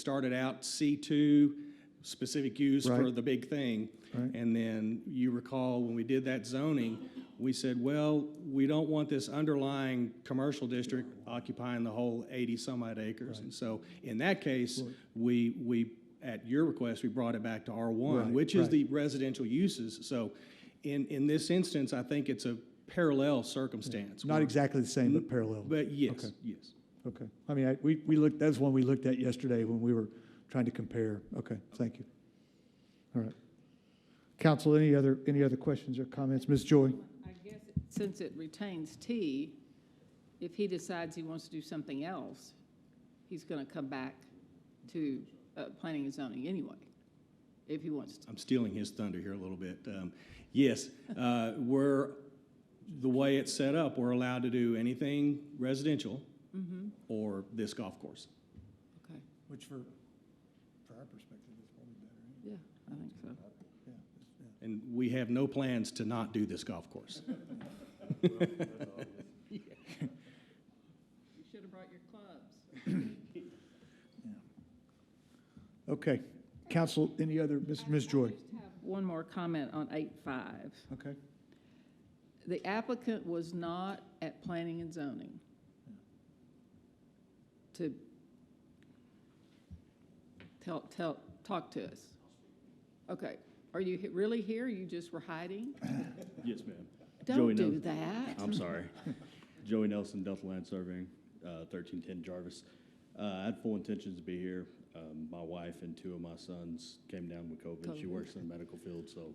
started out C2, specific use for Right. the big thing. Right. And then you recall when we did that zoning, we said, well, we don't want this underlying commercial district occupying the whole 80-some odd acres. And so in that case, we, we, at your request, we brought it back to R1, Right, which is right. the residential uses. So in, in this instance, I think it's a parallel circumstance. Not where- exactly the same, but parallel. But yes, Okay. yes. Okay. I mean, I, we, we looked, that was one we looked at yesterday when we were trying to compare. Okay, thank you. All right. Council, any other, any other questions or comments? Ms. Joy? I guess it- since it retains T, if he decides he wants to do something else, he's going to come back to uh, planning and zoning anyway, if he wants to. I'm stealing his thunder here a little bit. Um, Yes, uh, we're, the way it's set up, we're allowed to do anything residential or this golf course. Mm-hmm. Okay, Which for, for our perspective is probably better. yeah, I think so. And we have no plans to not do this golf course. You should have brought your clubs. Okay. Council, any other, Ms. Ms. Joy? One more comment on eight five. Okay. The applicant was not at planning and zoning to tell, tell, talk to us. Okay, are you he- really here? You just were hiding? Yes, ma'am. Don't Joey do knows. that. I'm sorry. Joey Nelson, Delta Land Surveying, uh, 1310 Jarvis. Uh, I had full intentions to be here. Um, My wife and two of my sons came down with COVID. She COVID. works in the medical field, so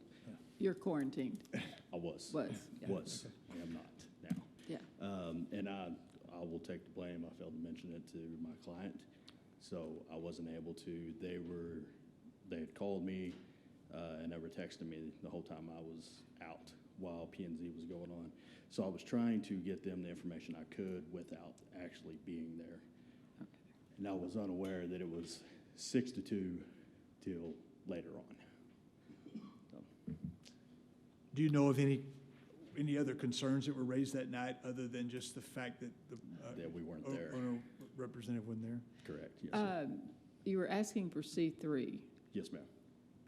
You're quarantined, I was. was, yeah, Was. I am not now. yeah. Um, and I, I will take the blame. I failed to mention it to my client, so I wasn't able to. They were, they had called me, uh, and they were texting me the whole time I was out while P and Z was going on. So I was trying to get them the information I could without actually being there. And I was unaware that it was six to two till later on. Do you know of any, any other concerns that were raised that night, other than just the fact that the uh, That we weren't Oh, o- there. owner representative wasn't there? Correct. Yes, sir. Um, You were asking for C three. yes, ma'am.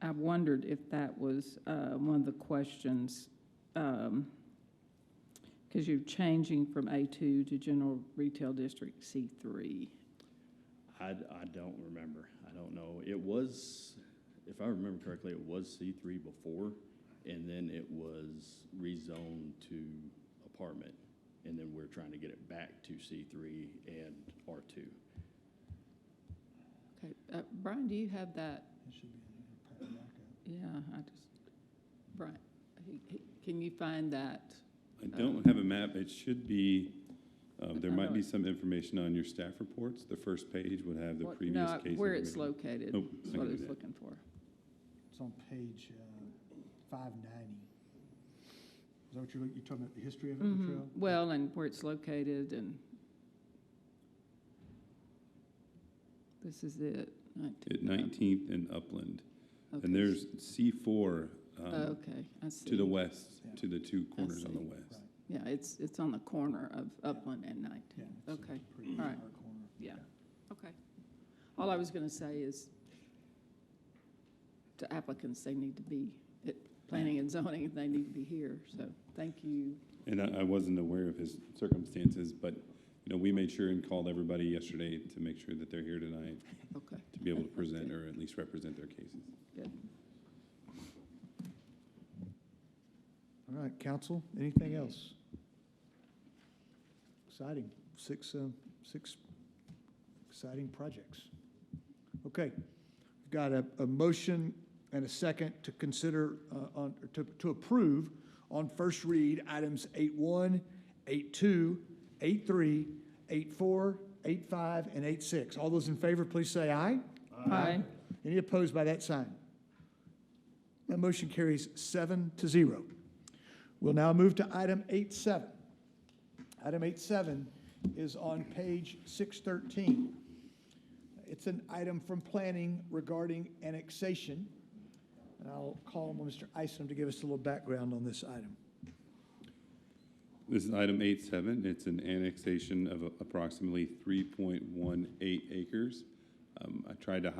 I wondered if that was uh, one of the questions, because you're changing from A2 to General Retail District C3. I, I don't remember. I don't know. It was, if I remember correctly, it was C three before, and then it was rezoned to apartment, and then we're trying to get it back to C three and R two. Okay, uh, Brian, do you have that? Yeah, I just, Brian, he- he- can you find that? I don't have a map. It should be, uh, there I might know be it. some information on your staff reports. The first page would have the What- previous no, case. Where it's information. located, Oh, I is what can I do was that. looking for. It's on page uh, five ninety. Is that what you're, you're talking about, the history of Mhm. Well, and where it's located and. This is it. Oh, At Nineteenth and Upland. Okay. Oh, And there's C four, um, Okay, I see. to the west, to the two I corners on the see. west. Yeah, it's, it's on the corner of Upland and Nineteen. Okay, all right, yeah, okay. All I was going to say is to applicants, they need to be at planning and zoning, they need to be here, so thank you. And I, I wasn't aware of his circumstances, but, you know, we made sure and called everybody yesterday to make sure that they're here tonight Okay, to be able to present or at least represent their cases. good. All right, council, anything else? Exciting, six, um, six exciting projects. Okay, we've got a, a motion and a second to consider, uh, on, or to, to approve on first read items eight one, eight two, eight three, eight four, eight five, and eight six. All those in favor, please say aye. Aye. Any opposed by that sign? That motion carries seven to zero. We'll now move to item eight seven. Item eight seven is on page six thirteen. It's an item from planning regarding annexation. And I'll call on Mr. Isom to give us a little background on this item. This is item eight seven. It's an annexation of approximately three point one eight acres Um, I tried to